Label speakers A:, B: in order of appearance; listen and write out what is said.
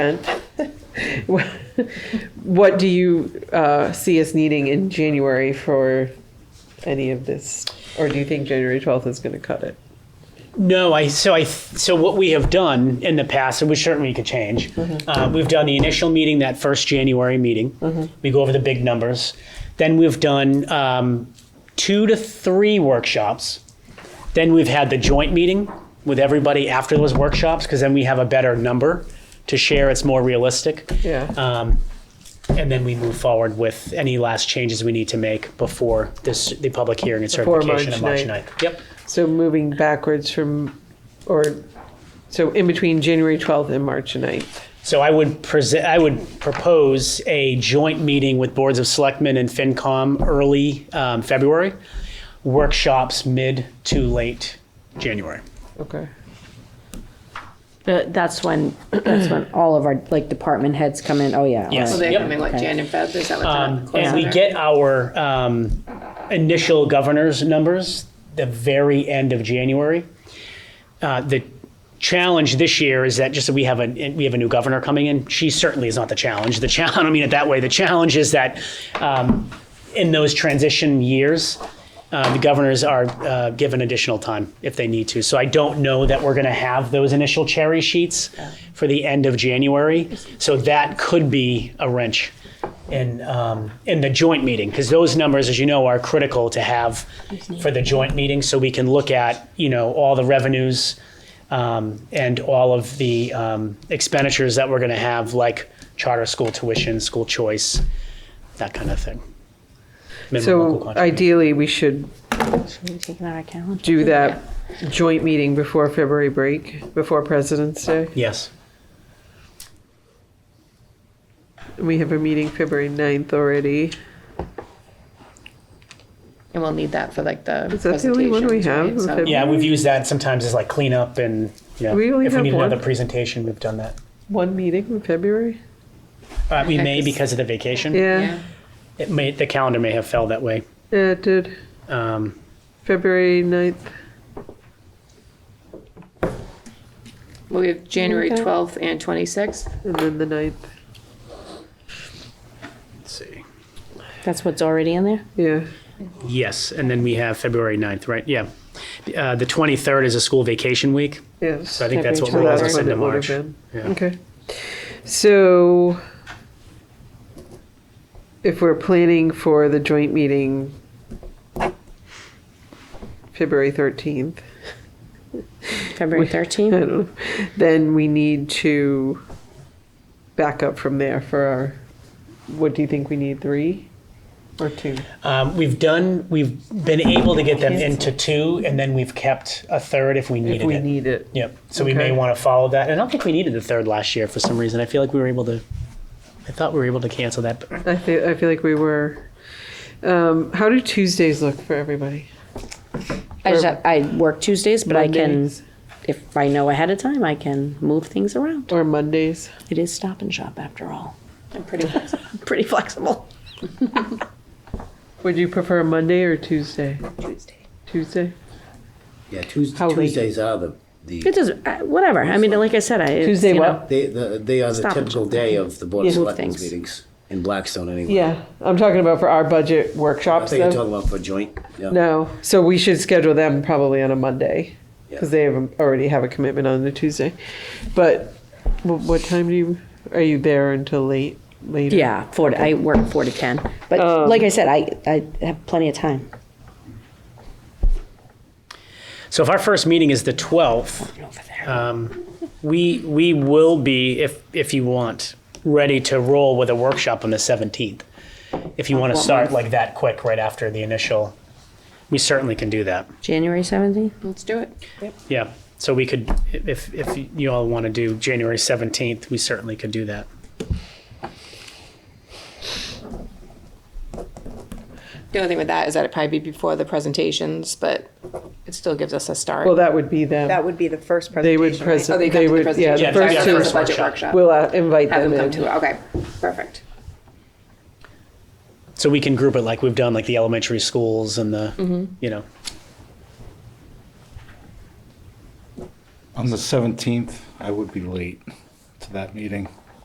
A: spent, what- what do you uh, see us needing in January for any of this? Or do you think January 12th is going to cut it?
B: No, I so I so what we have done in the past, and we certainly could change.
A: Mm-hmm.
B: Uh, we've done the initial meeting, that first January meeting. We go over the big numbers. Then we've done um, two to three workshops. Then we've had the joint meeting with everybody after those workshops, because then we have a better number to share. It's more realistic.
A: Yeah.
B: Um, and then we move forward with any last changes we need to make before this the public hearing and
A: Before
B: certification
A: March
B: on March
A: 9th.
B: 9th. Yep.
A: So moving backwards from, or, so in between January 12th and March 9th.
B: So I would present, I would propose a joint meeting with boards of selectmen and FinCom early um, February, workshops mid to late January.
A: Okay.
C: Uh, That's when, that's when all of our, like, department heads come in, oh, yeah. all
B: Yes.
D: So
C: right.
D: they're
B: Yep.
D: coming like Jan and Feb, is that what
B: Um,
D: they're close
B: and we
D: on?
B: get our um, initial governor's numbers the very end of January. Uh, the challenge this year is that just that we have a we have a new governor coming in. She certainly is not the challenge. The challenge, I don't mean it that way. The challenge is that um, in those transition years. Uh, the governors are uh, given additional time if they need to. So I don't know that we're going to have those initial cherry sheets for the end of January. So that could be a wrench in um, in the joint meeting because those numbers, as you know, are critical to have for the joint meeting, so we can look at you know all the revenues um, and all of the um, expenditures that we're going to have, like charter school tuition, school choice, that kind of thing. Minimum local
A: So
B: contribution.
A: ideally, we should do that joint meeting before February break, before President's Day.
B: yes,
A: We have a meeting February 9th already.
D: And we'll need that for like the
A: Is that the only one we
D: presentations,
A: have?
D: right?
A: With
D: So-
A: the-
B: yeah, we've used that sometimes as like cleanup and you know
A: We only
B: if we
A: have
B: need
A: one.
B: another presentation, we've done that.
A: One meeting in February?
B: Uh, we may
D: Heck, this-
B: because of the vacation.
A: Yeah,
D: Yeah.
B: It may the calendar may have fell that way.
A: yeah, it did.
B: Um,
A: February 9th.
D: Well, we have January
A: Okay.
D: 12th and 26th.
A: And then the ninth,
B: let's see.
C: That's what's already in there?
A: yeah.
B: Yes, and then we have February 9th, right? Yeah. Uh, The 23rd is a school vacation week,
A: Yes.
B: so I think that's what
A: So
C: February
B: rolls
A: that's
B: us
A: when
B: into
A: it would have
B: March.
A: been.
B: Yeah.
A: Okay. So if we're planning for the joint meeting February 13th,
C: February
A: I
C: 13th?
A: don't know, then we need to back up from there for our, what do you think we need, three or two?
B: Um, We've done, we've been able to get them into two, and then we've kept a third if we
A: If
B: needed
A: we
B: it.
A: need it.
B: Yep, so we may
A: Okay.
B: want to follow that. And I don't think we needed the third last year for some reason. I feel like we were able to, I thought we were able to cancel that. but-
A: I feel, I feel like we were. Um, how do Tuesdays look for everybody?
C: I just, have- I work Tuesdays, but I can,
A: Mondays?
C: if I know ahead of time, I can move things around.
A: Or Mondays?
C: It is Stop and Shop after all.
D: I'm pretty flexible.
C: Pretty flexible.
A: Would you prefer Monday or Tuesday? Tuesday?
E: Yeah, Tues-
A: How late?
E: Tuesdays are the, the,
C: It doesn't, uh, whatever, I mean, like I said, I. it's,
A: Tuesday
C: you know,
A: what?
E: they, the- they are the
C: Stop and
E: typical
C: shop.
E: day of the Board of
C: Yeah. Move
E: Selectmen's
C: things.
E: meetings in Blackstone anyway.
A: Yeah, I'm talking about for our budget
E: I
A: workshops
E: think you're
A: though.
E: talking about for joint, yeah.
A: No, so we should schedule them probably on a Monday
E: Yeah.
A: because they have, already have a commitment on the Tuesday. But wh- what time do you, are you there until late, later?
C: Yeah, four, to- I work four to 10,
A: Oh.
C: but like I said, I, I have plenty of time.
B: So if our first meeting is the 12th,
C: Over there.
A: Uh.
B: um, we, we will be, if, if you want, ready to roll with a workshop on the 17th. If you want to start like that quick right after the initial, we certainly can do that.
C: January 17th?
D: Let's do it.
B: Yeah, so we could, if, if you all want to do January 17th, we certainly could do that.
D: The only thing with that is that it'd probably be before the presentations, but it still gives us a start.
A: Well, that would be them.
F: That would be the first
A: They
F: presentation.
A: would
F: right?
D: Oh,
A: present,
D: they
A: they
D: come to the
A: would, yeah,
D: presentation.
B: Yeah,
A: the
D: Sorry,
A: first
B: yeah,
D: for the
B: first
A: two,
D: budget
B: workshop.
D: workshop.
A: we'll uh, invite
D: Have
A: them
D: them come
A: in.
D: to it, okay, perfect.
B: So we can group it like we've done, like the elementary schools and the, you know,
G: On the 17th, I would be late to that meeting.